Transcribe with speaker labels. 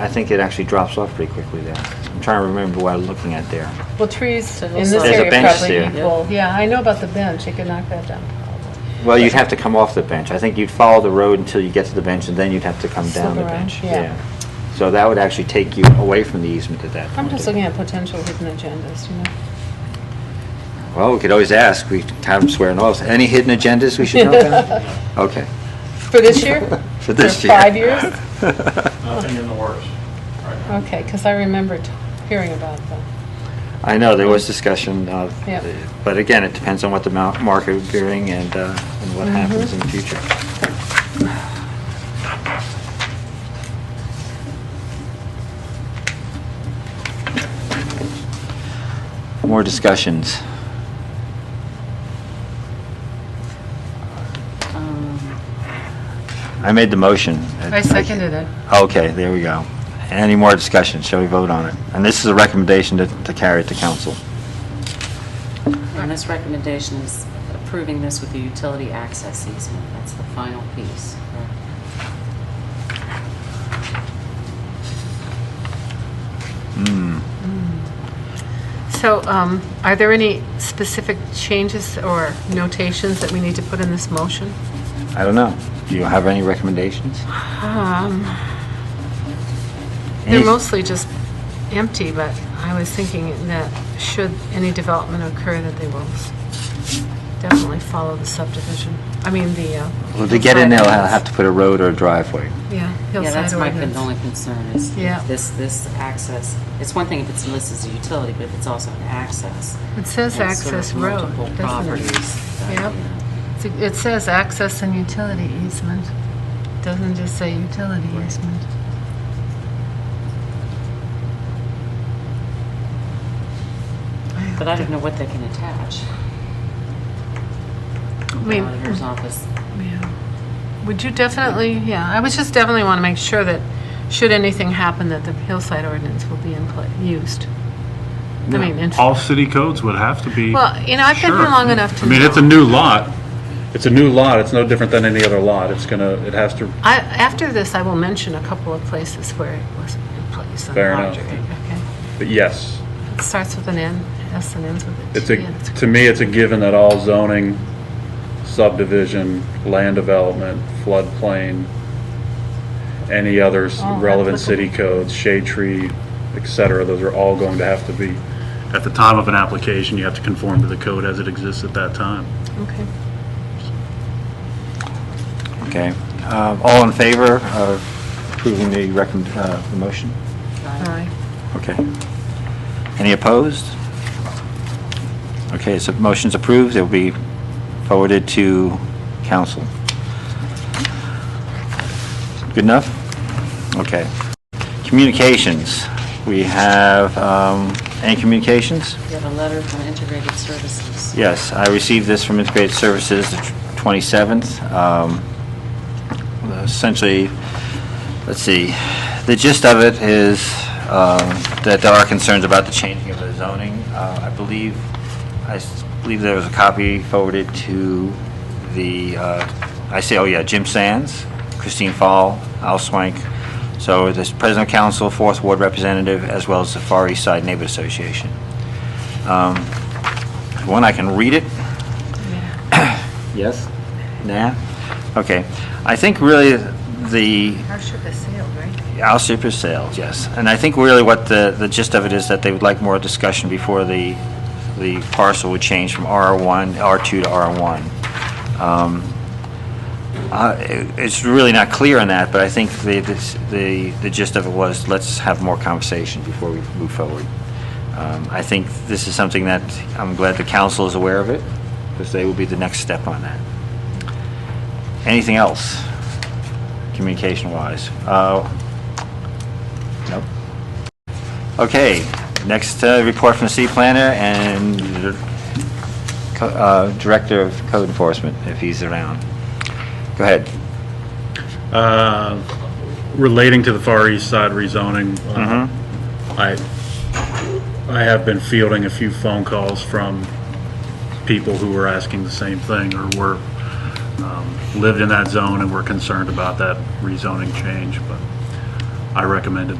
Speaker 1: I I think it actually drops off pretty quickly there. I'm trying to remember what I was looking at there.
Speaker 2: Well, trees in
Speaker 3: looks
Speaker 2: this
Speaker 3: like- There's a
Speaker 2: area
Speaker 1: bench
Speaker 2: probably
Speaker 1: there.
Speaker 2: equal, yeah, I know about the bench, you could knock that down probably.
Speaker 1: Well, you'd have to come off the bench. I think you'd follow the road until you get to the bench, and then you'd have to come
Speaker 2: Slip
Speaker 1: down the
Speaker 2: around,
Speaker 1: bench.
Speaker 2: yeah.
Speaker 1: So that would actually take you away from the easement at that point.
Speaker 2: I'm just looking at potential hidden agendas, you know?
Speaker 1: Well, we could always ask, we have them swearing oaths. Any hidden agendas we should know about? Okay.
Speaker 2: For this year?
Speaker 1: For this year.
Speaker 2: five years?
Speaker 4: Nothing in the works right now.
Speaker 2: Okay, because I remember t- hearing about them.
Speaker 1: I know, there was discussion of,
Speaker 2: Yeah.
Speaker 1: but again, it depends on what the mar- market would bring and uh, and
Speaker 3: Mm-hmm.
Speaker 1: what happens in the future. More discussions.
Speaker 5: Um,
Speaker 1: I made the motion.
Speaker 3: I seconded it.
Speaker 1: Okay, there we go. Any more discussion? Shall we vote on it? And this is a recommendation to to carry it to council.
Speaker 5: And this recommendation is approving this with the utility access easement. That's the final piece.
Speaker 3: So um, are there any specific changes or notations that we need to put in this motion?
Speaker 1: I don't know. Do you have any recommendations?
Speaker 3: Um,
Speaker 1: Any-
Speaker 3: They're mostly just empty, but I was thinking that should any development occur, that they will definitely follow the subdivision, I mean, the... uh,
Speaker 1: Well, to get in there, I'll have to put a road or a driveway.
Speaker 3: Yeah,
Speaker 5: Yeah,
Speaker 3: hillside
Speaker 5: that's my con-
Speaker 3: ordinance.
Speaker 5: only concern is
Speaker 3: Yeah.
Speaker 5: if this, this access, it's one thing if it's listed as a utility, but if it's also an access.
Speaker 3: It says
Speaker 5: and serve
Speaker 3: access road,
Speaker 5: multiple
Speaker 3: doesn't it?
Speaker 5: properties, uh, that,
Speaker 3: Yep.
Speaker 5: you know.
Speaker 3: It's- It says access and utility easement, doesn't just say utility easement.
Speaker 5: But I don't know what they can attach.
Speaker 3: I mean,
Speaker 5: Auditor's office.
Speaker 3: yeah. Would you definitely, yeah, I was just definitely want to make sure that, should anything happen, that the hillside ordinance will be in pla used. I mean, in-
Speaker 6: All city codes would have to be.
Speaker 3: well, you know, I've been here
Speaker 6: Sure.
Speaker 3: long enough to
Speaker 6: I mean, it's a
Speaker 3: know.
Speaker 6: new lot. It's a new lot. It's no different than any other lot. It's gonna, it has to,
Speaker 3: I, after this, I will mention a couple of places where it wasn't in place. on the
Speaker 6: Fair enough.
Speaker 3: boundary, Okay.
Speaker 6: but yes.
Speaker 3: It starts with an N, S and ends with a T.
Speaker 6: It's a,
Speaker 3: and it's-
Speaker 6: to me, it's a given that all zoning, subdivision, land development, floodplain, any other s-
Speaker 2: All
Speaker 6: relevant city codes, shade tree, et cetera, those are all going to have to be, at the time of an application, you have to conform to the code as it exists at that time.
Speaker 3: Okay.
Speaker 1: Okay. Uh, All in favor of approving the recommend, uh, the motion?
Speaker 3: All right.
Speaker 1: Okay. Any opposed? Okay, so motion's approved. It'll be forwarded to council. Good enough? Okay. Communications. We have, um, any communications?
Speaker 5: You have a letter from Integrated Services.
Speaker 1: Yes, I received this from Integrated Services, the tw- 27th. Um, Essentially, let's see, the gist of it is um, that there are concerns about the changing of the zoning. Uh, I believe, I s- believe there was a copy forwarded to the, uh, I say, oh yeah, Jim Sands, Christine Fall, Al Swank, so this President of Council, Fourth Ward Representative, as well as the Far East Side Neighborhood Association. Um, one, I can read it. Yes? Nah? Okay. I think really the
Speaker 3: Our ship has sailed, right?
Speaker 1: Al Super Sales, yes. And I think really what the, the gist of it is that they would like more discussion before the, the parcel would change from R1, R2 to R1. Um, uh, it- It's really not clear on that, but I think the, this- the the gist of it was, let's have more conversation before we move forward. Um, I think this is something that, I'm glad the council is aware of it, because they will be the next step on that. Anything else, communication-wise? Uh, Nope. Okay, next uh, report from the city planner and co- uh, Director of Code Enforcement, if he's around. Go ahead.
Speaker 6: Uh, Relating to the Far East Side rezoning, uh,
Speaker 1: Mhm.
Speaker 6: I, I have been fielding a few phone calls from people who were asking the same thing or were, um, lived in that zone and were concerned about that rezoning change, but I recommended